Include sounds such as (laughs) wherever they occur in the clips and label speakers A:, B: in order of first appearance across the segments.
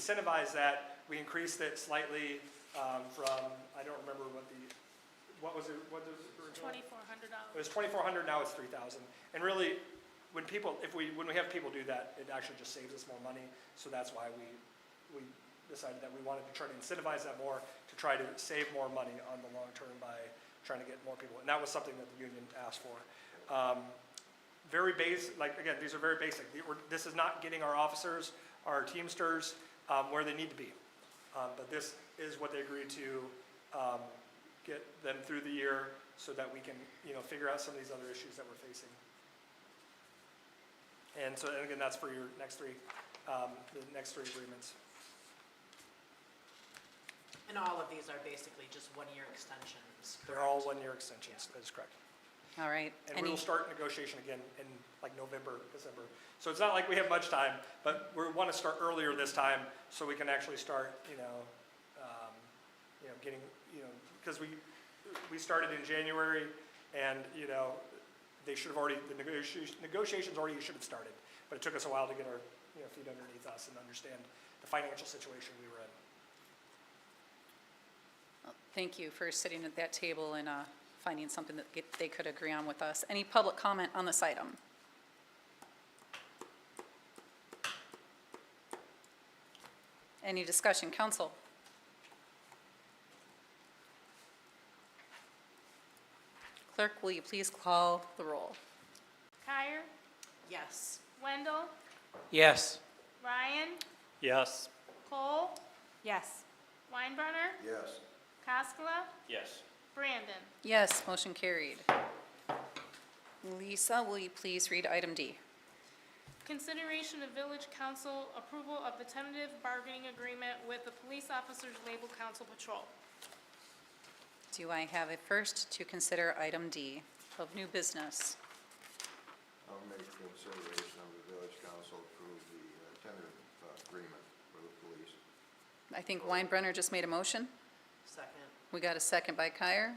A: incentivize that, we increased it slightly um, from, I don't remember what the, what was it, what was it? original?
B: Twenty-four
A: It
B: hundred dollars.
A: was 2,400, now it's 3,000. And really, when people, if we, when we have people do that, it actually just saves us more money. So that's why we, we decided that we wanted to try to incentivize that more, to try to save more money on the long term by trying to get more people. And that was something that the union asked for. Um, very base, like, again, these are very basic. The- we're- This is not getting our officers, our Teamsters, um, where they need to be. Um, But this is what they agreed to um, get them through the year so that we can, you know, figure out some of these other issues that we're facing. And so, and again, that's for your next three, um, the next three agreements.
C: And all of these are basically just one-year extensions,
A: They're all one-year extensions, that is correct.
D: All right.
A: And we
D: Any,
A: will start negotiation again in like November, December. So it's not like we have much time, but we want to start earlier this time so we can actually start, you know, um, you know, getting, you know, because we, we started in January and, you know, they should have already, the negotiation, negotiations already should have started. But it took us a while to get our, you know, feet underneath us and understand the financial situation we were in.
D: thank you for sitting at that table and uh, finding something that get- they could agree on with us. Any public comment on this item? Any discussion, council? Clerk, will you please call the roll?
B: Kyer,
C: Yes.
B: Wendell,
E: Yes.
B: Ryan,
E: Yes.
B: Cole,
D: Yes.
B: Weinbrenner,
F: Yes.
B: Cascola,
E: Yes.
B: Brandon.
D: Yes, motion carried. Lisa, will you please read item D?
B: Consideration of village council approval of the tentative bargaining agreement with the police officers label council patrol.
D: Do I have a first to consider item D of new business?
F: I'll make consideration of the village council approve the uh, tentative uh, agreement with the police.
D: I think Weinbrenner just made a motion.
C: Second.
D: We got a second by Kyer.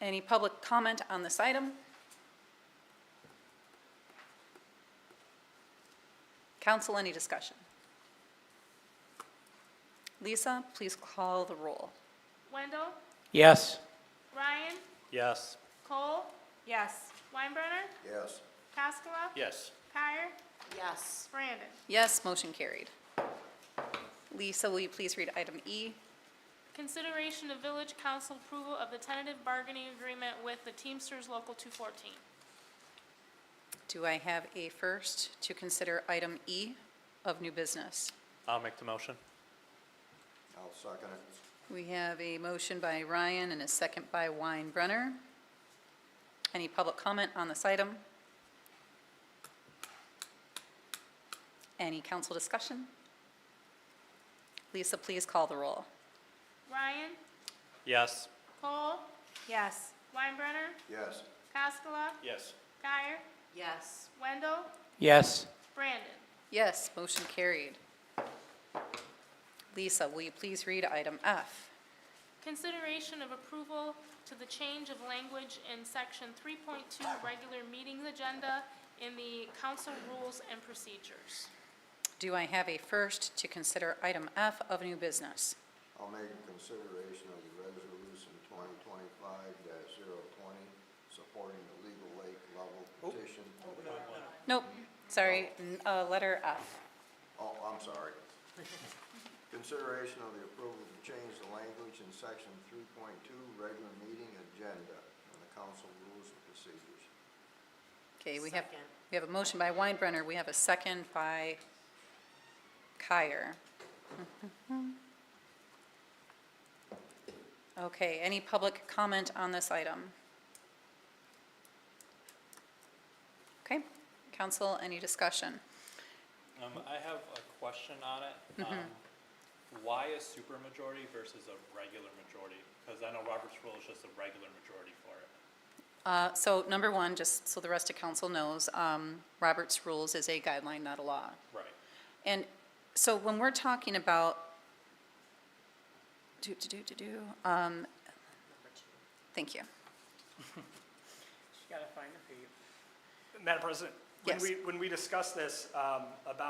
D: Any public comment on this item? Council, any discussion? Lisa, please call the roll.
B: Wendell,
E: Yes.
B: Ryan,
E: Yes.
B: Cole,
D: Yes.
B: Weinbrenner,
F: Yes.
B: Cascola,
E: Yes.
B: Kyer,
C: Yes.
B: Brandon.
D: Yes, motion carried. Lisa, will you please read item E?
B: Consideration of village council approval of the tentative bargaining agreement with the Teamsters Local 214.
D: Do I have a first to consider item E of new business?
E: I'll make the motion.
F: I'll second it.
D: We have a motion by Ryan and a second by Weinbrenner. Any public comment on this item? Any council discussion? Lisa, please call the roll.
B: Ryan,
E: Yes.
B: Cole,
D: Yes.
B: Weinbrenner,
F: Yes.
B: Cascola,
E: Yes.
B: Guyer,
C: Yes.
B: Wendell,
E: Yes.
B: Brandon.
D: Yes, motion carried. Lisa, will you please read item F?
B: Consideration of approval to the change of language in section 3.2 regular meetings agenda in the council rules and procedures.
D: Do I have a first to consider item F of new business?
F: I'll make consideration of the resolution twenty twenty-five 20 supporting the legal lake level petition.
D: Nope, sorry, n- uh, letter F.
F: Oh, I'm sorry. Consideration of the approval to change the language in section three point two, regular meeting agenda, and the council rules and procedures.
D: Okay, we have,
C: Second.
D: we have a motion by Weinbrenner, we have a second by Kyer. (laughs) Okay, any public comment on this item? Okay, council, any discussion?
G: Um, I have a question on it. Um, why a supermajority versus a regular majority? Because I know Robert's rule is just a regular majority for it.
D: Uh, So number one, just so the rest of council knows, um, Robert's Rules is a guideline, not a law.
G: Right.
D: And so when we're talking about, do, do, do, do, do, um, thank you.
A: Madam President, when
D: Yes.
A: we, when we discussed this um, about